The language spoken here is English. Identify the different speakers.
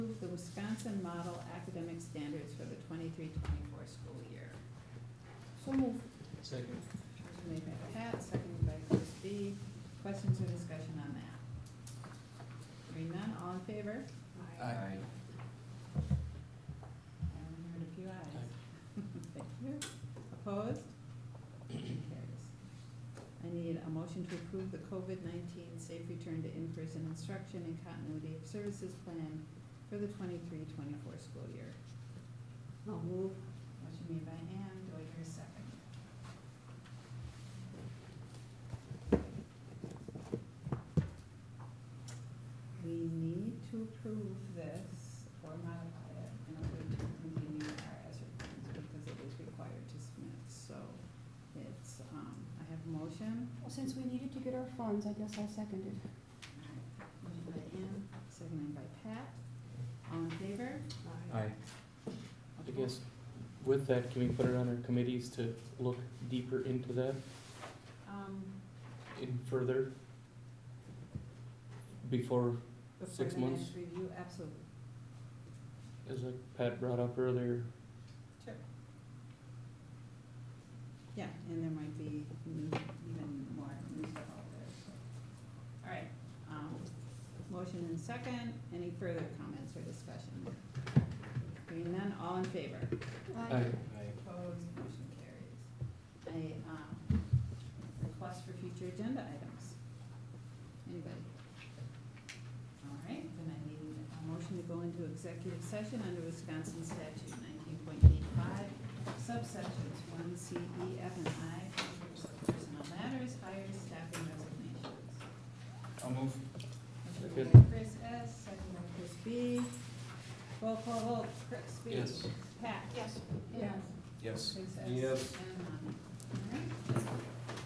Speaker 1: Jackson Model Academic Standards for the 23-24 school year.
Speaker 2: So move.
Speaker 3: Second.
Speaker 1: Motion made by Pat, seconded by Chris B. Questions or discussion on that? Hearing none, all in favor?
Speaker 3: Aye.
Speaker 1: And heard a few ayes. Thank you. Opposed? Motion carries. I need a motion to approve the COVID nineteen safe return to in-person instruction and continuity of services plan for the 23-24 school year.
Speaker 2: I'll move.
Speaker 1: Motion made by Ann, do I hear a second? We need to approve this or modify it in order to continue our ESER funds because it is required to submit, so it's, um, I have a motion.
Speaker 2: Well, since we needed to get our funds, I guess I seconded.
Speaker 1: Motion by Ann, seconded by Pat, all in favor?
Speaker 3: Aye. I guess with that, can we put it on our committees to look deeper into that
Speaker 1: Um,
Speaker 3: and further? Before,
Speaker 1: before
Speaker 3: Six
Speaker 1: the next
Speaker 3: months?
Speaker 1: review, absolutely.
Speaker 3: as like Pat brought up earlier,
Speaker 1: Sure. Yeah, and there might be new- even more new stuff out there, so. All right, um, motion and second, any further comments or discussion? Hearing none, all in favor?
Speaker 3: aye,
Speaker 1: Opposed, motion carries. I, um, request for future agenda items. Anybody? All right, then I need a motion to go into executive session under Wisconsin statute nineteen point eight five, subsections one C, E, F, and I, for personnel matters, hires, staffing, resignations.
Speaker 4: I'll move.
Speaker 1: Motion by
Speaker 3: Second.
Speaker 1: Chris S., second by Chris B. Roll call vote, Chris B.
Speaker 3: Yes.
Speaker 1: Pat. Yes. Yes.
Speaker 4: Yes.
Speaker 1: Chris S.
Speaker 4: Yes.
Speaker 1: And um,